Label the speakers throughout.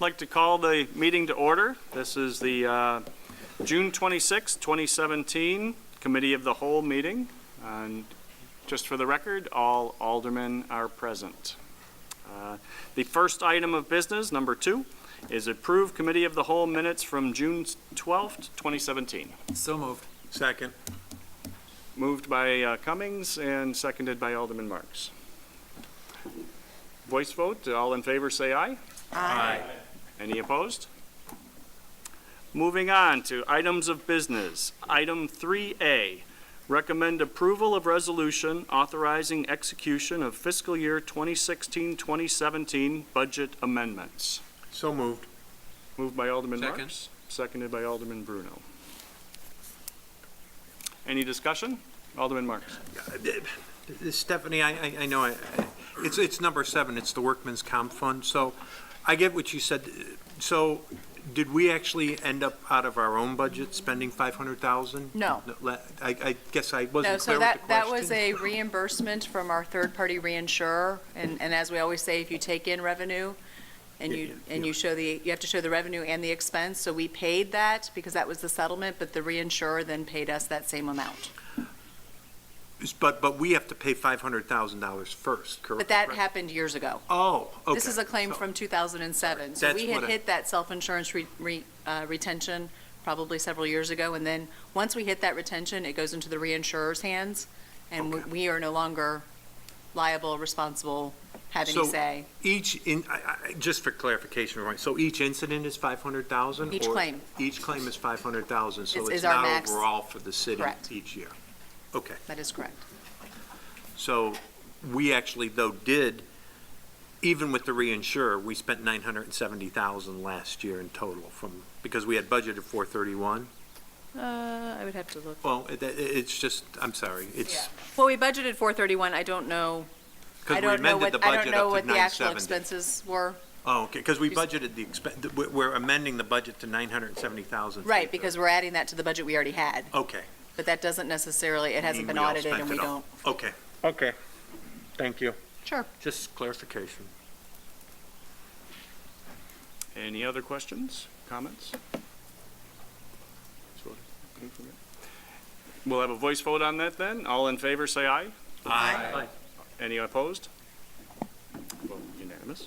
Speaker 1: like to call the meeting to order. This is the uh, June 26, 2017 Committee of the Whole meeting. And just for the record, all aldermen are present. Uh, The first item of business, number two, is approved Committee of the Whole minutes from June 12th, 2017.
Speaker 2: So moved.
Speaker 3: Second.
Speaker 1: Moved by uh, Cummings and seconded by Alderman Marks. Voice vote, all in favor, say aye.
Speaker 3: Aye.
Speaker 1: Any opposed? Moving on to items of business. Item 3A, recommend approval of resolution authorizing execution of fiscal year 2016-2017 budget amendments.
Speaker 3: So moved.
Speaker 1: Moved by Alderman
Speaker 2: Second.
Speaker 1: Marks, seconded by Alderman Bruno. Any discussion? Alderman Marks.
Speaker 3: Stephanie, I, I, I know, I- I- it's, it's number seven, it's the workman's comp fund, so I get what you said. So did we actually end up out of our own budget spending five hundred thousand?
Speaker 4: No.
Speaker 3: I, I guess I
Speaker 4: No,
Speaker 3: wasn't
Speaker 4: so
Speaker 3: clear with the
Speaker 4: that, that was
Speaker 3: question.
Speaker 4: a reimbursement from our third-party reinsurer, and, and as we always say, if you take in revenue and you, and you show the, you have to show the revenue and the expense, so we paid that because that was the settlement, but the reinsurer then paid us that same amount.
Speaker 3: But, but we have to pay five hundred thousand dollars first, correct?
Speaker 4: But that happened years ago.
Speaker 3: Oh, okay.
Speaker 4: This is a claim
Speaker 3: So-
Speaker 4: from 2007. So
Speaker 3: That's
Speaker 4: we had
Speaker 3: what I-
Speaker 4: hit that self-insurance re- re- uh, retention probably several years ago, and then, once we hit that retention, it goes into the reinsurer's hands, and we-
Speaker 3: Okay.
Speaker 4: we are no longer liable, responsible, have any
Speaker 3: So-
Speaker 4: say.
Speaker 3: Each, in, I, I, just for clarification, right, so each incident is five hundred thousand?
Speaker 4: Each claim.
Speaker 3: Each claim is five hundred thousand, so
Speaker 4: Is-
Speaker 3: it's
Speaker 4: is our
Speaker 3: not
Speaker 4: max.
Speaker 3: overall for the city
Speaker 4: Correct.
Speaker 3: each year. Okay,
Speaker 4: That is correct.
Speaker 3: so we actually though did, even with the reinsurer, we spent nine hundred and seventy thousand last year in total from, because we had budgeted four thirty-one.
Speaker 4: Uh, I would have to look.
Speaker 3: Well, it, it- it's just, I'm sorry, it's,
Speaker 4: Well, we budgeted 431. I don't know, I
Speaker 3: because we
Speaker 4: don't know
Speaker 3: amended
Speaker 4: what,
Speaker 3: the
Speaker 4: I don't
Speaker 3: budget
Speaker 4: know
Speaker 3: up to
Speaker 4: what the
Speaker 3: nine
Speaker 4: actual
Speaker 3: seventy.
Speaker 4: expenses were.
Speaker 3: Oh, okay, because we
Speaker 4: Excuse-
Speaker 3: budgeted the expen, we're- we're amending the budget to nine hundred and seventy thousand.
Speaker 4: Right, because we're adding that to the budget we already had,
Speaker 3: Okay.
Speaker 4: but that doesn't necessarily, it hasn't
Speaker 3: mean
Speaker 4: been
Speaker 3: we all
Speaker 4: audited
Speaker 3: spent
Speaker 4: and we
Speaker 3: it all.
Speaker 4: don't.
Speaker 3: Okay. Okay. Thank you.
Speaker 4: Sure.
Speaker 3: Just clarification.
Speaker 1: Any other questions, comments? We'll have a voice vote on that then. All in favor, say aye.
Speaker 3: Aye.
Speaker 1: Any opposed? Vote Unanimous.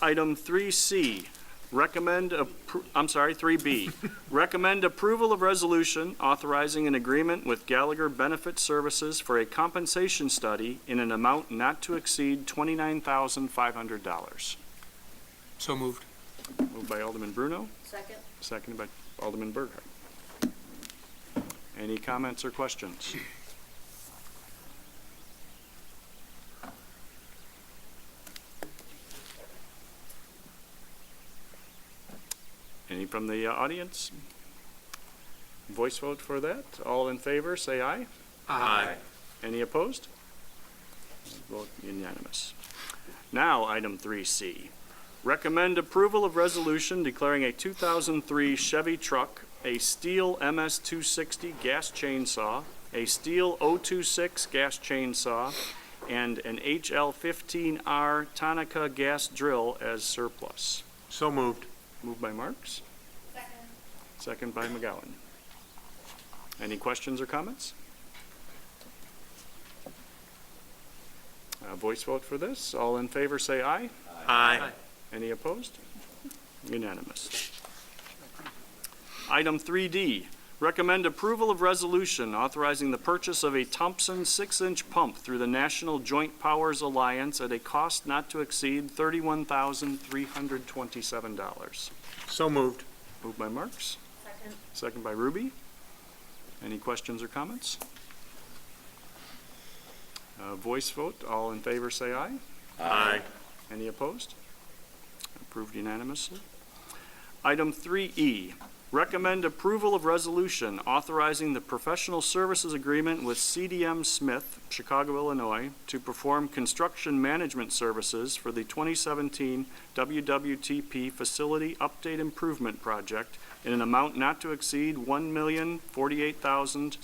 Speaker 1: Item 3C, recommend, appro- I'm sorry, 3B, recommend approval of resolution authorizing an agreement with Gallagher Benefit Services for a compensation study in an amount not to exceed $29,500.
Speaker 2: So moved.
Speaker 1: Moved by Alderman Bruno.
Speaker 4: Second.
Speaker 1: Seconded by Alderman Burkhart. Any comments or questions? Any from the uh, audience? Voice vote for that. All in favor, say aye.
Speaker 3: Aye.
Speaker 1: Any opposed? Vote unanimous. Now, item 3C. Recommend approval of resolution declaring a 2003 Chevy truck, a steel MS-260 gas chainsaw, a steel 026 gas chainsaw, and an HL-15R Tonica gas drill as surplus.
Speaker 3: So moved.
Speaker 1: Moved by Marks. Second. Second by McGowan. Any questions or comments? Uh, voice vote for this. All in favor, say aye.
Speaker 3: Aye.
Speaker 1: Any opposed? Unanimous. Item 3D, recommend approval of resolution authorizing the purchase of a Thompson six-inch pump through the National Joint Powers Alliance at a cost not to exceed $31,327.
Speaker 3: So moved.
Speaker 1: Moved by Marks. Second. Second by Ruby. Any questions or comments? Uh, Voice vote, all in favor say aye.
Speaker 3: Aye.
Speaker 1: Any opposed? Approved unanimously. Item 3E, recommend approval of resolution authorizing the professional services agreement with CDM Smith, Chicago, Illinois, to perform construction management services for the 2017 WWTP Facility Update Improvement Project in an amount not to exceed one million forty-eight thousand.